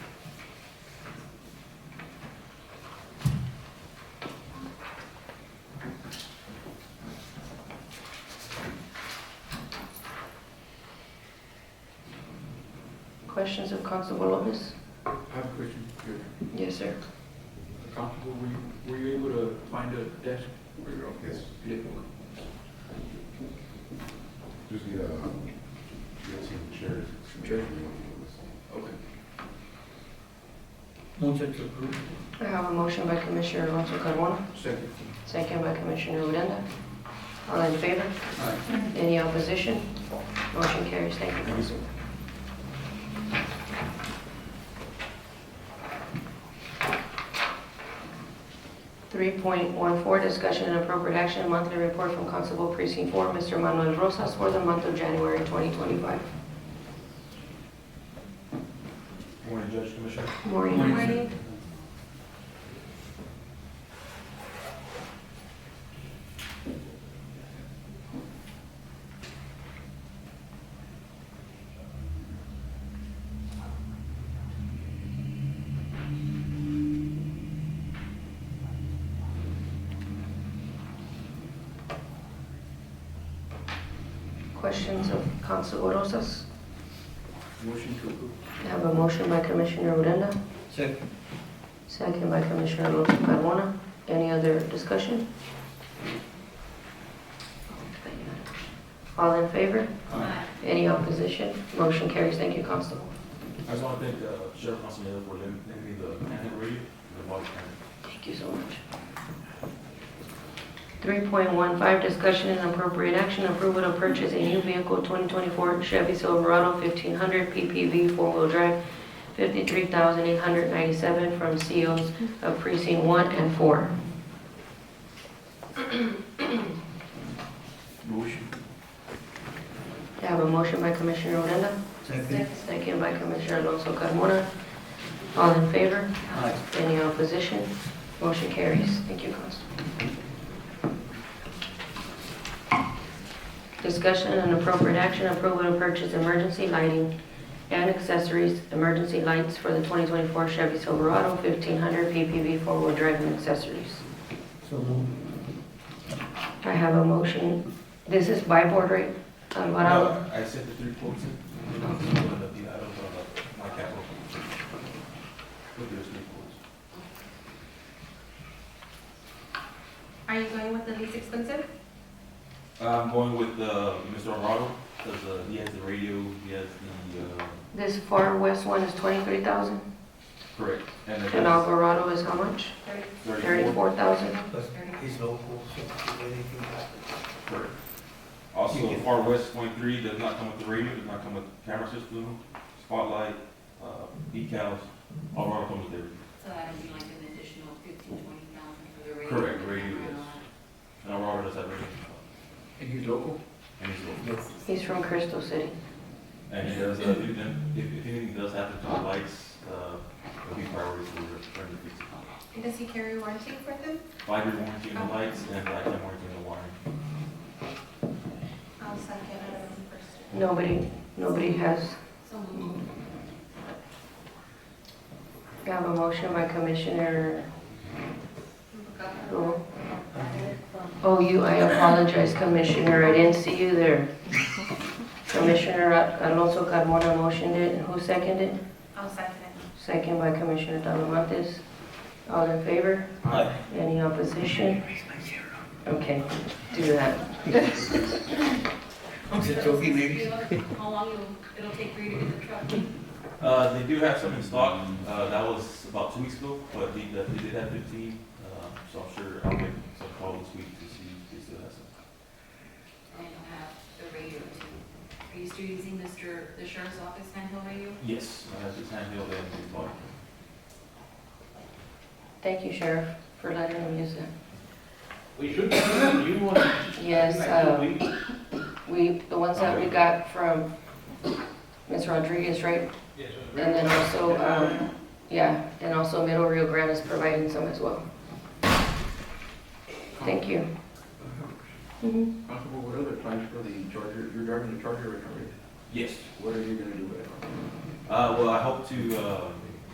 questions of Constable Lopez? I have a question. You're Yes, sir. Comfortable, were you, were you able to find a desk? for your office? Yes. You did? Just need a, get some chairs. Sure. Okay. Motion to approve. I have a motion by Commissioner Alonso Carmona, Second. second by Commissioner Odena. All in favor? Aye. Any opposition? Motion carries. Thank you, Council. Three point one four, discussion and appropriate action, monthly report from Constable Precinct Four, Mr. Manuel Rosas, for the month of January twenty twenty-five. Morning, Judge Commissioner. Maureen. Morning. Questions of Constable Rosas? Motion to approve. I have a motion by Commissioner Odena, Second. second by Commissioner Alonso Carmona. Any other discussion? All in favor? Aye. Any opposition? Motion carries. Thank you, Constable. I just want to thank uh, Sheriff Montanero for letting letting me the panic read, the body cam. Thank you so much. 3.15, discussion and appropriate action, approval to purchase a new vehicle, 2024 Chevy Silverado 1500 PPV, four-wheel drive, 53897 from COs of precinct 1 and 4. Motion. I have a motion by Commissioner Odena, second by Commissioner Alonso Carmona. All in favor? Aye. Any opposition? Motion carries. Thank you, Constable. Discussion and appropriate action, approval to purchase emergency lighting and accessories, emergency lights for the 2024 Chevy Silverado 1500 PPV four-wheel drive and accessories. So moved. I have a motion. This is by board rate, Alvarado. No, I sent the three quotes in. I'm gonna be out of uh, my capital. Look at those three quotes. Are you going with the least expensive? I'm going with uh, Mr. Arado, because uh, he has the radio, he has the, uh, This Far West one is 23,000 correct. And and then Alvarado is how much? Thirty- 34, 34,000. thirty. He's local, so anything happens. correct. Also, Far West Point Three does not come with the radio, does not come with camera system, spotlight, uh, decals. Arado comes with everything. So that'll be like an additional fifteen, twenty thousand for the radio. Correct, radio, and all yes. And Arado does have radio. And he's local? And he's local. He's from Crystal City. And it does, uh, if, if if anything does happen to the lights, uh, it'll be priority for the, for the fix. that. And does he carry warranty for them? Five-year warranty on the lights and lifetime warranty on the wiring. I'll second it on the first. Nobody, nobody has. So moved. I have a motion by Commissioner Rule. Oh, you, I apologize, Commissioner, I didn't see you there. Commissioner Alonso Carmona motioned it, who seconded? I'll second it. Second by Commissioner Talamontes. All in favor? Aye. Any opposition? Okay, do that. Is it joking, maybe? How long Uh, it'll, it'll take for you to get the truck? Uh, they do have some in stock, uh, that was about two weeks ago, but they, that- they did have fifteen, uh, so I'm sure I'll make some call this week to see if they still have some. And you'll have the radio too. Are you still using Mr., the sheriff's office handheld radio? Yes, I have this handheld and this body. Thank you, Sheriff, for letting them use it. We should, you want to Yes, uh, actually, we- we, the ones that we got from Ms. Rodriguez, right? yes, uh, And then also, um, yeah, and also Middle Rio Grande is providing some as well. Thank you. Mhm. Constable, what other plans for the Charger? You're driving the Charger right now, right? Yes. What are you gonna do with it? Uh, well, I hope to, uh,